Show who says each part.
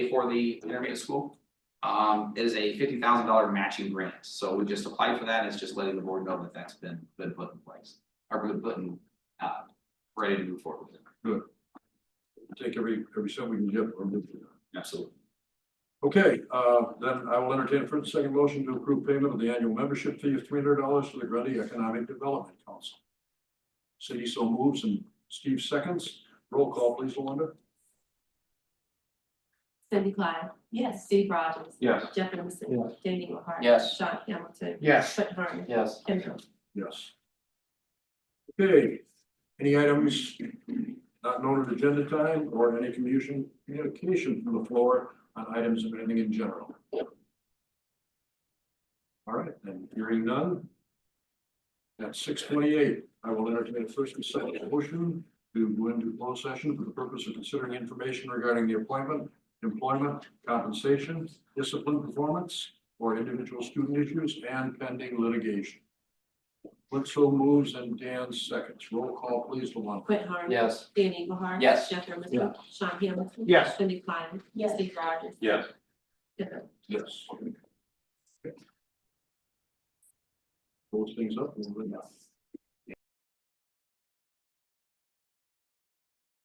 Speaker 1: for the intermediate school. Um, it is a fifty thousand dollar matching grant, so we just applied for that, and it's just letting the board know that that's been, been put in place, or been put in, uh, ready to move forward with it.
Speaker 2: Take every, every cent we can get. or move it.
Speaker 1: Absolutely.
Speaker 2: Okay, uh, then I will entertain a first and second motion to approve payment of the annual membership fee of three hundred dollars to the Grundy Economic Development Council. City so moves and Steve seconds. Roll call, please, Melinda.
Speaker 3: Cindy Klein. Yes. Steve Rogers.
Speaker 4: Yes.
Speaker 3: Jeff Emerson.
Speaker 4: Yes.
Speaker 3: Danny Lehart.
Speaker 1: Yes.
Speaker 3: Sean Hamilton.
Speaker 4: Yes.
Speaker 3: Brett Harmon.
Speaker 4: Yes.
Speaker 3: Kim Hill.
Speaker 2: Yes. Okay, any items not noted agenda time or any communication, communication from the floor on items of anything in general? All right, then hearing none. At six twenty-eight, I will entertain a first and second motion to go into closed session for the purpose of considering information regarding the appointment, employment, compensation, discipline performance, or individual student issues and pending litigation. Bledsoe moves and Dan seconds. Roll call, please, Luana.
Speaker 3: Brett Harmon.
Speaker 4: Yes.
Speaker 3: Danny Lehart.
Speaker 1: Yes.
Speaker 3: Jeff Emerson.
Speaker 4: Yeah.
Speaker 3: Sean Hamilton.
Speaker 4: Yes.
Speaker 3: Cindy Klein. Yes. Steve Rogers.
Speaker 4: Yes.
Speaker 3: Kim Hill.
Speaker 2: Yes. Close things up. and we'll go now.